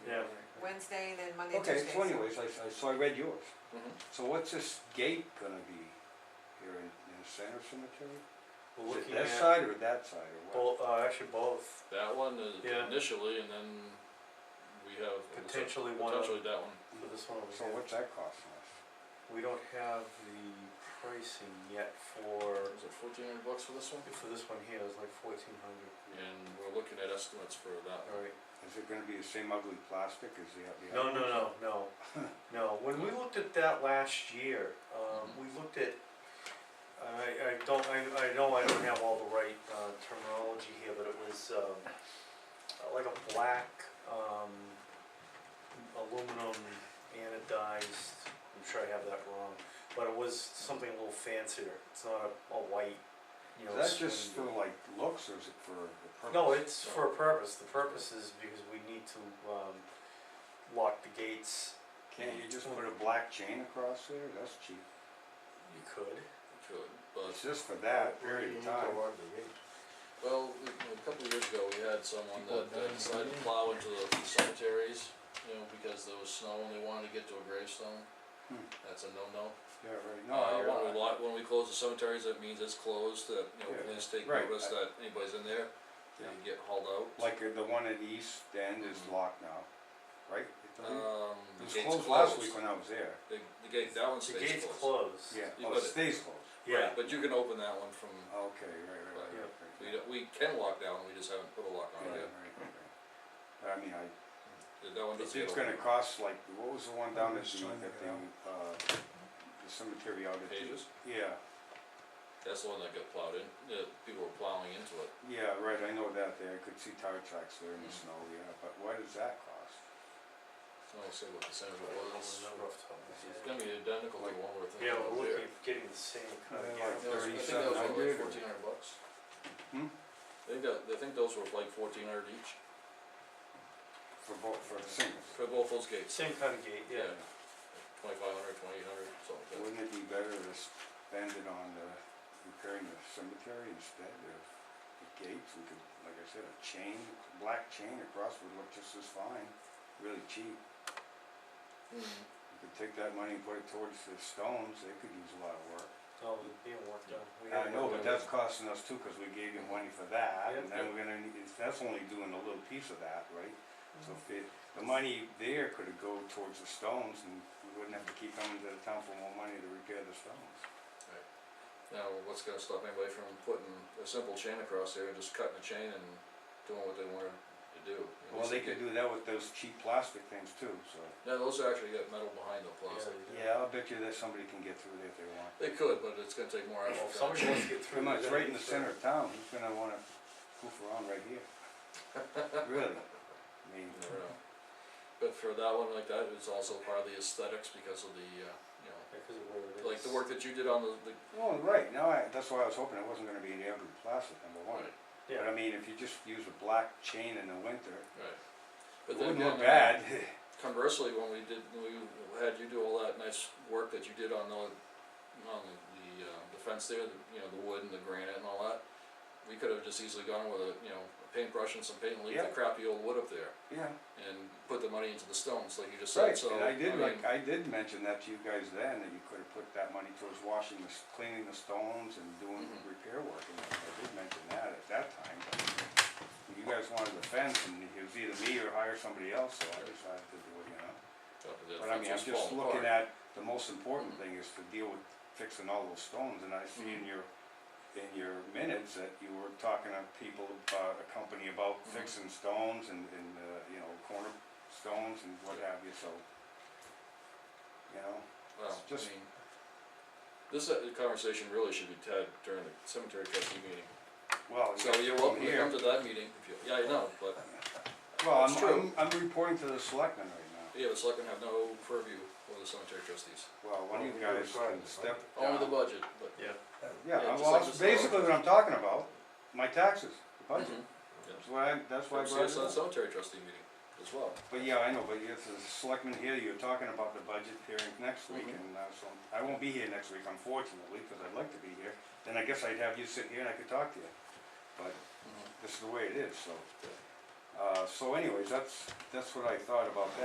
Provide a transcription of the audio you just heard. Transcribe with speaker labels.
Speaker 1: Wednesday and then Monday,
Speaker 2: Okay,
Speaker 1: Tuesday.
Speaker 2: so anyways, I, I, so I read yours.
Speaker 3: Mhm.
Speaker 2: So what's this gate gonna be here in, in the center cemetery?
Speaker 4: We're
Speaker 2: Is it
Speaker 4: looking
Speaker 2: that
Speaker 4: at
Speaker 2: side or that side or
Speaker 4: both,
Speaker 2: what?
Speaker 4: uh, actually both,
Speaker 3: That one is
Speaker 4: Yeah.
Speaker 3: initially, and then we have.
Speaker 4: potentially one of,
Speaker 3: Potentially that one.
Speaker 4: for this one over
Speaker 2: So
Speaker 4: here.
Speaker 2: what's that costing us?
Speaker 4: We don't have the pricing yet for,
Speaker 3: Is it fourteen hundred bucks for this one?
Speaker 4: for this one here, it's like fourteen hundred.
Speaker 3: And we're looking at estimates for that one.
Speaker 4: Alright,
Speaker 2: Is it gonna be the same ugly plastic as the, the
Speaker 4: no,
Speaker 2: other?
Speaker 4: no, no, no, no, when we looked at that last year, um, we looked at, I, I don't, I, I know I don't have all the right, uh, terminology here, but it was, um, like a black, um, aluminum anodized, I'm sure I have that wrong, but it was something a little fancier, it's not a, a white, you know.
Speaker 2: Is that just for
Speaker 4: swing-
Speaker 2: like looks or is it for the purpose?
Speaker 4: no, it's for a purpose, the purpose is because we need to, um, lock the gates,
Speaker 2: Can't you just put a black chain across there? That's cheap.
Speaker 4: you could.
Speaker 3: Good, but,
Speaker 2: It's just for that period of time.
Speaker 3: well, we- a couple of years ago, we had someone that uh, decided to plow into the cemeteries, you know, because there was snow and they wanted to get to a gravestone.
Speaker 2: Hmm.
Speaker 3: That's a no-no.
Speaker 2: Yeah, right,
Speaker 3: Uh,
Speaker 2: no, you're
Speaker 3: when we
Speaker 2: right.
Speaker 3: lock, when we close the cemeteries, that means it's closed, that, you know,
Speaker 2: Yeah,
Speaker 3: police take
Speaker 2: right,
Speaker 3: notice
Speaker 2: I-
Speaker 3: that anybody's in there, they
Speaker 2: Yeah.
Speaker 3: get hauled out.
Speaker 2: Like uh, the one at the east end is
Speaker 3: Mhm.
Speaker 2: locked now, right? It doesn't-
Speaker 3: Um,
Speaker 2: It
Speaker 3: the
Speaker 2: was
Speaker 3: gate's
Speaker 2: uh, closed last week when I was there.
Speaker 3: The, the gate, that one
Speaker 4: The
Speaker 3: stays
Speaker 4: gate's
Speaker 3: closed.
Speaker 4: closed.
Speaker 2: Yeah,
Speaker 3: You
Speaker 2: oh,
Speaker 3: put
Speaker 2: it
Speaker 3: it-
Speaker 2: stays closed.
Speaker 3: Right,
Speaker 4: Yeah,
Speaker 3: But you can open that one from,
Speaker 2: Okay, right, right, right,
Speaker 3: Yeah.
Speaker 2: right.
Speaker 3: we, don't- we can lock down, we just haven't put a lock
Speaker 2: Yeah,
Speaker 3: on it
Speaker 2: right,
Speaker 3: yet.
Speaker 2: right, right. I mean, I,
Speaker 3: That- That one
Speaker 2: it's,
Speaker 3: doesn't get
Speaker 2: it's gonna
Speaker 3: opened.
Speaker 2: cost like, what was the one down at the,
Speaker 5: Trying to
Speaker 2: at
Speaker 5: get
Speaker 2: the, uh, the cemetery out at the.
Speaker 3: Pages,
Speaker 2: Yeah,
Speaker 3: that's the one that got plowed in, yeah, people were plowing into it.
Speaker 2: yeah, right, I know that there, I could see tire tracks there in the
Speaker 3: Mhm.
Speaker 2: snow, yeah, but what does that cost?
Speaker 3: I don't say what the
Speaker 4: I
Speaker 3: center
Speaker 4: don't remember
Speaker 3: was,
Speaker 4: off the top of my
Speaker 3: it's
Speaker 4: head.
Speaker 3: gonna be identical to the one we're thinking
Speaker 4: Yeah,
Speaker 3: of
Speaker 4: we're looking
Speaker 3: there.
Speaker 4: at getting the same kind of gap.
Speaker 2: Yeah, like
Speaker 3: Those- I think that was only
Speaker 2: 3700
Speaker 3: like
Speaker 2: or-
Speaker 3: fourteen hundred bucks.
Speaker 2: Hmm?
Speaker 3: I think that, I think those were like fourteen hundred each,
Speaker 2: For both, for the singles?
Speaker 3: for both those gates,
Speaker 4: Same kind of gate, yeah.
Speaker 3: twenty-five hundred, twenty-eight hundred, something like that.
Speaker 2: Wouldn't it be better to spend it on the, repairing the cemetery instead of the gates? We could, like I said, a chain, black chain across would look just as fine, really cheap.
Speaker 3: Mhm.
Speaker 2: You could take that money and put it towards the stones, they could use a lot of work.
Speaker 4: No, it's being worked on. We
Speaker 2: I
Speaker 4: gotta
Speaker 2: know,
Speaker 4: work
Speaker 2: but
Speaker 4: on it.
Speaker 2: that's costing us too, cause we gave you money for that, and
Speaker 3: Yeah.
Speaker 2: then we're gonna, need- it's- that's only doing a little piece of that, right? So
Speaker 1: Mm-hmm.
Speaker 4: Mhm.
Speaker 2: if it, the money there could have go towards the stones, and we wouldn't have to keep coming to the town for more money to repair the stones.
Speaker 3: Now, what's gonna stop anybody from putting a simple chain across there and just cutting a chain and doing what they wanted to do? You know, it's
Speaker 2: Well,
Speaker 3: a
Speaker 2: they could
Speaker 3: gate.
Speaker 2: do that with those cheap plastic things too, so.
Speaker 3: No, those are actually got metal behind the plastic.
Speaker 2: Yeah, I'll bet you that somebody can get through there if they want.
Speaker 3: They could, but it's gonna take more
Speaker 4: Well,
Speaker 3: effort.
Speaker 4: if somebody wants to get through.
Speaker 2: Pretty much
Speaker 4: we're
Speaker 2: right in
Speaker 4: gonna get
Speaker 2: the center of town, who's gonna wanna goof around right here? Really? I mean,
Speaker 3: You never know. But for that one like that, it's also part of the aesthetics because of the, uh, you know,
Speaker 4: through. Because of where it is.
Speaker 3: like the work that you did on the, the.
Speaker 2: well, right, now, I, that's why I was hoping it wasn't gonna be any ugly plastic, number one. But I
Speaker 4: Yeah,
Speaker 2: mean, if you just use a black chain in the winter,
Speaker 3: Right.
Speaker 2: it
Speaker 3: But then
Speaker 2: wouldn't look
Speaker 3: again, uh,
Speaker 2: bad.
Speaker 3: Conversely, when we did, when we had you do all that nice work that you did on the, on the, uh, the fence there, the, you know, the wood and the granite and all that. We could have just easily gone with a, you know, a paintbrush and some paint and leave the
Speaker 2: Yeah.
Speaker 3: crappy old wood up there
Speaker 2: Yeah,
Speaker 3: and put the money into the stones like you just said,
Speaker 2: right,
Speaker 3: so.
Speaker 2: and I did,
Speaker 3: mean,
Speaker 2: like, I did mention that to you guys then, that you could have put that money towards washing the, s- cleaning the stones and doing
Speaker 3: Mhm.
Speaker 2: repair work, and I did mention that at that time. but when You guys wanted the fence, and it was either me or hire somebody else, so I decided to do it, you know?
Speaker 3: uh, the
Speaker 2: But
Speaker 3: fence
Speaker 2: I mean, I'm
Speaker 3: was
Speaker 2: just
Speaker 3: falling
Speaker 2: looking
Speaker 3: apart.
Speaker 2: at, the most important
Speaker 3: Mhm.
Speaker 2: thing is to deal with fixing all those stones, and I see
Speaker 3: Mm-hmm.
Speaker 2: in your, in your minutes that you were talking to people, uh, a company about
Speaker 3: Mhm.
Speaker 2: fixing stones and, and, uh, you know, corner stones and what have you, so. You know,
Speaker 3: Well, I
Speaker 2: just-
Speaker 3: mean, this uh, conversation really should be had during the cemetery trustee meeting.
Speaker 2: well,
Speaker 3: So you're welcome to
Speaker 2: here,
Speaker 3: come to that meeting if you, yeah, I know, but,
Speaker 2: well,
Speaker 3: It's true.
Speaker 2: I'm, I'm, I'm reporting to the selectmen right now,
Speaker 3: yeah, the selectmen have no purview over the cemetery trustees.
Speaker 2: well, one of you
Speaker 5: Well, we're
Speaker 2: guys
Speaker 5: required
Speaker 2: can
Speaker 5: to
Speaker 2: step down.
Speaker 3: Only the budget, but.
Speaker 4: yeah.
Speaker 2: Yeah,
Speaker 3: yeah, just like
Speaker 2: well, that's
Speaker 3: the selectmen.
Speaker 2: basically what I'm talking about, my taxes, the budget,
Speaker 3: Mhm.
Speaker 2: that's why, I- that's why I
Speaker 3: Come see us
Speaker 2: brought it
Speaker 3: on
Speaker 2: up.
Speaker 3: the cemetery trustee meeting as well.
Speaker 2: But yeah, I know, but if the selectmen here, you're talking about the budget hearing next week,
Speaker 3: Mhm.
Speaker 2: and uh, so, I won't be here next week unfortunately, because I'd like to be here. Then I guess I'd have you sit here and I could talk to you, but
Speaker 3: Mm-hmm.
Speaker 2: this is the way it is, so. Uh, so anyways, that's, that's what I thought about that.